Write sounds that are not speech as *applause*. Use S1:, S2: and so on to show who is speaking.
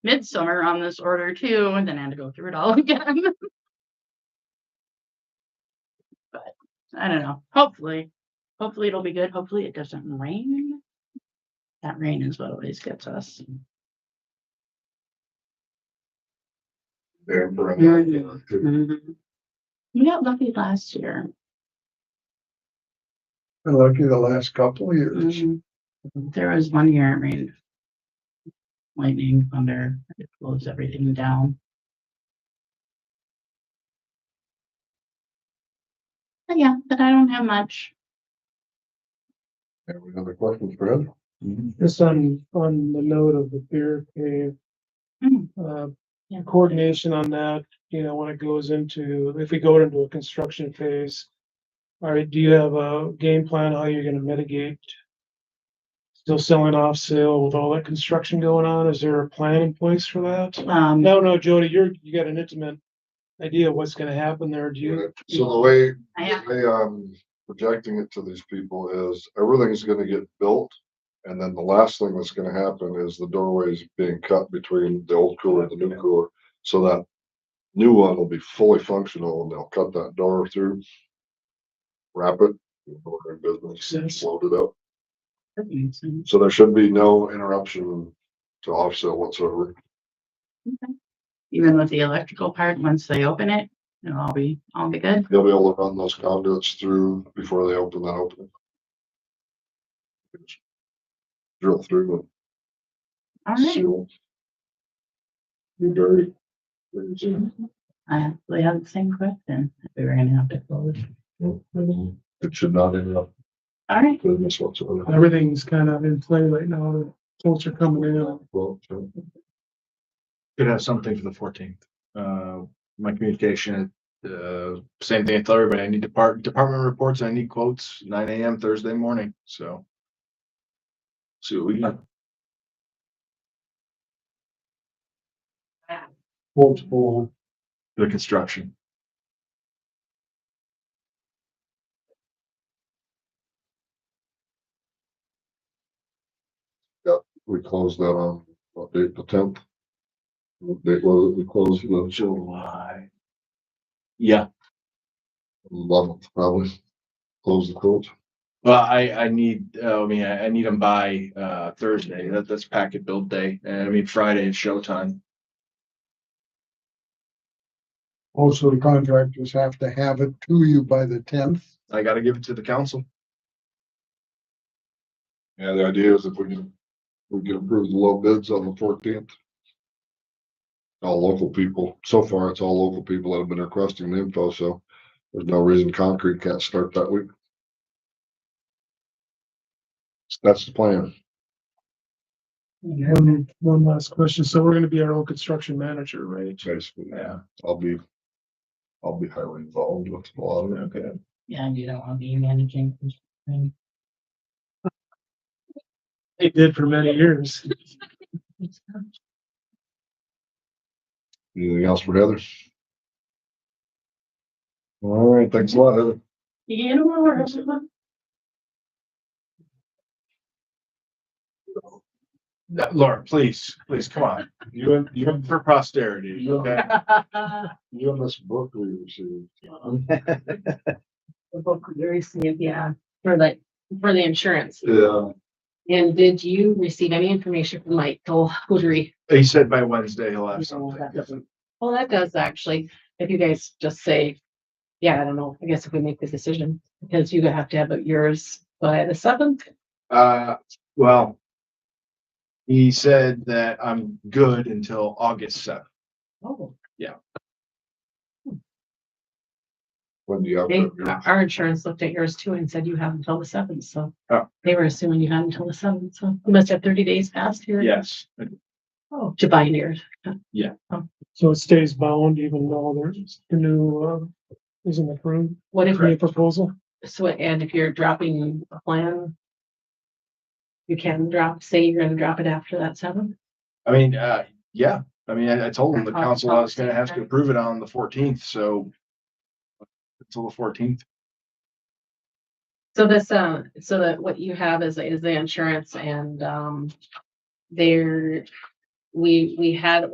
S1: midsummer on this order too, and then I had to go through it all *laughs* again. But I don't know. Hopefully, hopefully it'll be good. Hopefully it doesn't rain. That rain is what always gets us.
S2: there for.
S1: Yeah.
S2: another year.
S1: We got lucky last year.
S2: Been Lucky the last couple of
S1: Mm-hmm.
S2: years.
S1: There was one year it rained. Lightning, thunder, it blows everything down. But yeah, but I don't have much.
S2: Have another question, Fred? Mm-hmm.
S3: Just on, on the note of the beer cave.
S1: Mm.
S3: Uh,
S1: Yeah.
S3: coordination on that, you know, when it goes into, if we go into a construction phase. All right, do you have a game plan how you're gonna mitigate? Still selling off sale with all that construction going on? Is there a plan in place for that?
S1: Um,
S3: No, no, Jody, you're, you got an intimate idea of what's gonna happen there. Do you?
S2: So the way,
S1: I have,
S2: the way I'm projecting it to these people is everything's gonna get built. And then the last thing that's gonna happen is the doorways being cut between the old cooler and the new cooler. So that new one will be fully functional and they'll cut that door through. Wrap it, go in business,
S3: Yes.
S2: load it up.
S1: that makes sense.
S2: So there should be no interruption to offset whatsoever.
S1: even with the electrical part, once they open it, it'll all be, all be good.
S2: You'll be able to run those conduits through before they open that opening. Drill through
S1: All
S2: and
S1: right.
S2: seal. You dirty.
S1: I actually have the same question. if We were gonna have to close.
S2: It should not interrupt
S1: All right,
S2: business whatsoever.
S3: Everything's kind of in play right now. The Folks are coming in.
S2: Well, so
S4: Could have something for the fourteenth. Uh, my communication, uh, same thing I tell everybody, I need depart, department reports, I need quotes, nine AM Thursday morning, so. See what we got.
S3: Multiple.
S4: The construction.
S2: We closed that on, what date, the tenth? They closed, we closed the children
S4: July. Yeah,
S2: eleventh, probably. Closed the court.
S4: well, I, I need, uh, I mean, I, I need them by, uh, Thursday. That, that's packet build day. And I mean, Friday is showtime.
S5: Also, the contractors have to have it to you by the tenth.
S4: I gotta give it to the council.
S2: Yeah, the idea is if we can, we can approve the low bids on the fourteenth. All local people, so far it's all local people that have been requesting the info, so there's no reason concrete can't start that week. That's the plan.
S3: One, one last question. So we're gonna be our own construction manager, right?
S2: Basically,
S4: Yeah,
S2: I'll be, I'll be highly involved with a lot of it.
S4: okay.
S1: yeah, you don't want to be managing.
S3: They did for many years.
S2: Anything else for Heather? All right, thanks a lot, Heather.
S1: You get a word.
S4: No, Laura, please, please, come on. You, have- you, have for posterity, okay?
S2: You have this book we received.
S6: the book we received, yeah, for like, for the insurance.
S2: Yeah.
S6: And did you receive any information from Mike Hoodry?
S4: He said by Wednesday he'll have something.
S6: Well, that does actually, if you guys just say, yeah, I don't know, I guess if we make the decision, because you have to have it yours by the seventh.
S4: Uh, well. He said that I'm good until August seventh.
S6: Oh.
S2: When do you have?
S6: They,
S2: that?
S6: our insurance looked at yours too and said you have until the seventh, so.
S4: Oh.
S6: They were assuming you had until the seventh, so you must have thirty days past here.
S4: Yes,
S6: Oh, to bind yours.
S3: So it stays bound even though there's a new, uh, isn't approved,
S6: What if
S3: new proposal.
S6: So, and if you're dropping a plan. You can drop, say you're gonna drop it after that seven.
S4: I mean, uh, yeah, I mean, I, I told him the
S6: Uh-huh.
S4: council I was gonna have to approve it on the fourteenth, so. Until the fourteenth,
S6: So this, uh, so that what you have is, is the insurance and, um. Their um, we, we had